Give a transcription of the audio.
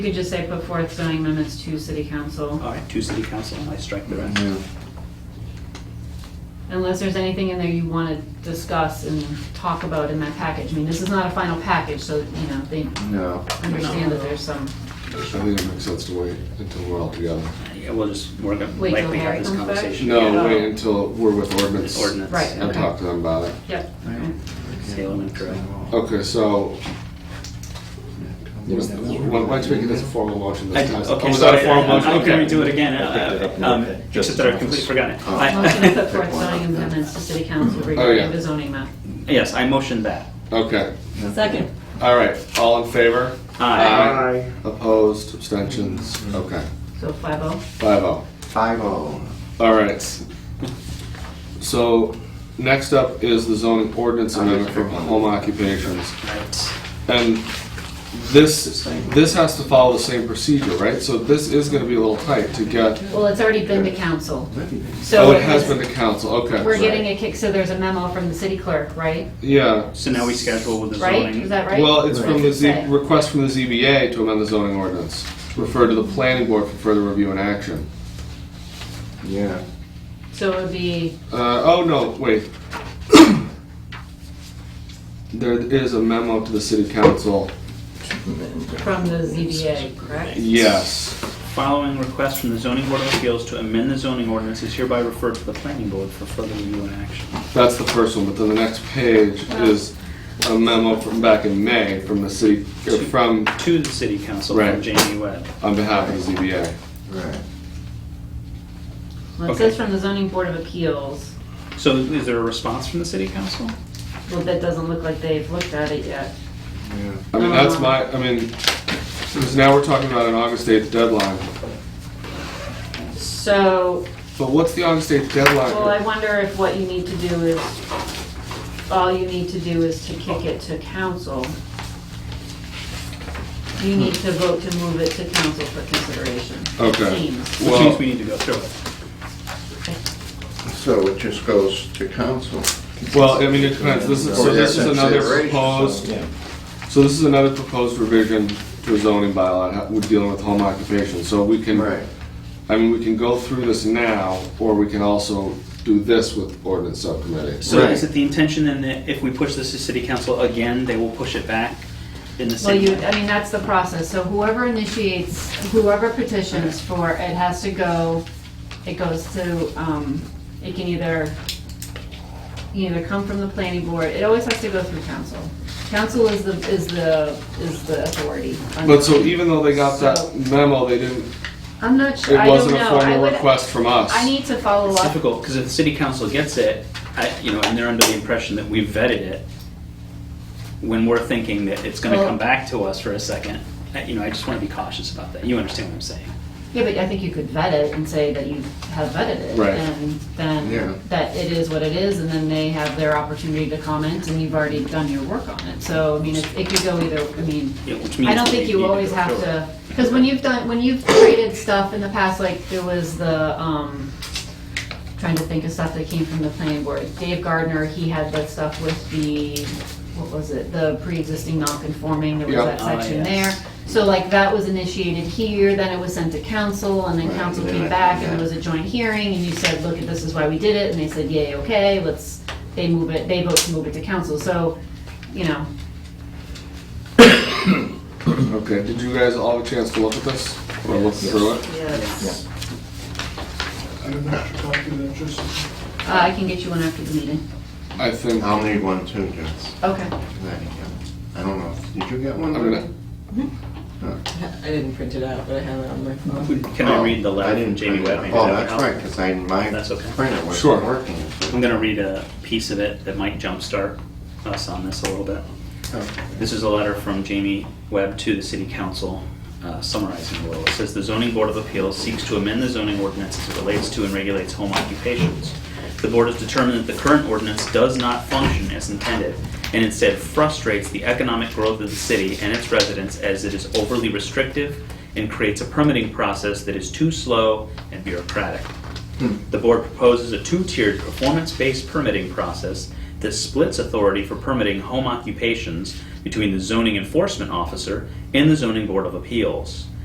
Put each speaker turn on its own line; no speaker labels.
You could just say put forth zoning amendments to city council,
All right, to city council, and I strike the rest.
Yeah.
unless there's anything in there you want to discuss and talk about in that package. I mean, this is not a final package, so, you know, they
No,
understand that there's some,
I think it makes sense to wait until we're all together.
Yeah, we'll just, we're gonna
Wait till
likely have
Harry
this
comes back?
conversation. again.
No, wait until we're with ordinance.
With ordinance.
Right,
And
okay.
talk to them about it.
yep.
Alright. Salem and Troy.
Okay, so, was- why why don't you make it as a formal motion this
I-
time?
Okay,
Was
sorry,
that
I'm
a formal motion?
I'm gonna
Okay.
redo it again,
picked it
uh,
up in
um,
the head.
except that I completely forgot it.
Oh.
Motion to
I-
put forth zoning amendments to city council
yeah.
regarding the zoning map.
Yes, I motioned that.
Okay,
Second.
all right, all in favor?
Aye.
Opposed, abstentions, okay,
So five oh.
five oh.
Five oh.
All right. So, next up is the zoning ordinance amendment for home occupations.
Right.
And this, this has to follow the same procedure, right? So this is gonna be a little tight to get,
Well, it's already been to council. So
oh, it has
it's-
been to council, okay.
We're getting a kick, so there's a memo from the city clerk, right?
Yeah,
So now we schedule with the
Right?
zoning.
Is that right?
well, it's from the Z,
Right.
request from the ZBA to amend the zoning ordinance. Refer to the planning board for further review and action.
Yeah.
So it would be,
Uh, oh, no, wait. There is a memo to the city council,
from the ZBA, correct?
yes.
Following request from the zoning board of appeals to amend the zoning ordinance is hereby referred to the planning board for further review and action.
That's the first one, but then the next page is a memo from back in May from the city, or from,
To the city council
Right.
from Jamie Webb.
on behalf of the ZBA.
Right.
Well, it
Okay.
says from the zoning board of appeals,
So is there a response from the city council?
well, that doesn't look like they've looked at it yet.
Yeah.
I mean, that's my, I mean, because now we're talking about an August 8th deadline.
So,
But what's the August 8th
well, I
deadline?
wonder if what you need to do is, all you need to do is to kick it to council. You need to vote to move it to council for consideration. it
Okay.
seems.
Which
Well-
means we need to go through it.
So it just goes to council.
Well, I mean, it depends, this is, so
For their
this is another
consideration, so,
proposed,
yeah.
so this is another proposed revision to a zoning bylaw, ha- we're dealing with home occupation, so we can,
Right.
I mean, we can go through this now, or we can also do this with ordinance subcommittee.
So is
Right.
it the intention then that if we push this to city council again, they will push it back in the
Well,
same?
you, I mean, that's the process, so whoever initiates, whoever petitions for, it has to go, it goes to, um, it can either, either come from the planning board, it always has to go through council. Council is the, is the, is the authority. on-
But so even though they got that
So-
memo, they didn't,
I'm not sure, I
it
don't
wasn't a
know, I
formal
would,
request from us.
I need to follow
It's
up,
difficult, because if the city council gets it, I, you know, and they're under the impression that we've vetted it, when we're thinking that it's gonna
Well-
come back to us for a second, I- you know, I just wanna be cautious about that. You understand what I'm saying?
yeah, but I think you could vet it and say that you have vetted it.
Right.
And
Yeah.
then, that it is what it is, and then they have their opportunity to comment, and you've already done your work on it, so, I mean, it it could go either, I mean,
Yeah,
I
which means
don't
that
think
they
you
need to
always
go
have
through
to, because when you've done, when you've created stuff in the past, like there was the, um, trying to think of stuff that came from the planning board. Dave Gardner, he had that stuff with the, what was it, the pre-existing non-conforming, there was
Yep.
that
Ah,
section
yes.
there. So like that was initiated here, then it was sent to council, and then
Right,
council
and then
came
I-
back, and
yeah.
it was a joint hearing, and you said, look, this is why we did it, and they said, yay, okay, let's, they move it, they vote to move it to council, so, you know,
Okay, did you guys all have a chance to look at this? Or look through it?
yes.
I have an extra copy of that, just.
Uh, I can get you one after the meeting.
I think,
I'll need one too, Jess.
Okay.
I don't know. Did you get one?
I'm gonna,
I didn't print it out, but I have it on my phone.
it. Can I read the
Oh,
letter
I
from
didn't
Jamie
print it
Webb?
out.
Maybe
Oh,
that would
that's
help.
right, because I, my
That's okay.
printer
Sure.
wasn't working.
I'm gonna read a piece of it that might jumpstart us on this a little bit. This is a letter from Jamie Webb to the city council uh, summarizing a little. It says, "The zoning board of appeals seeks to amend the zoning ordinance as it relates to and regulates home occupations. The board has determined that the current ordinance does not function as intended and instead frustrates the economic growth of the city and its residents as it is overly restrictive and creates a permitting process that is too slow and bureaucratic. The board proposes a two-tiered performance-based permitting process that splits authority for permitting home occupations between the zoning enforcement officer and the zoning board of appeals.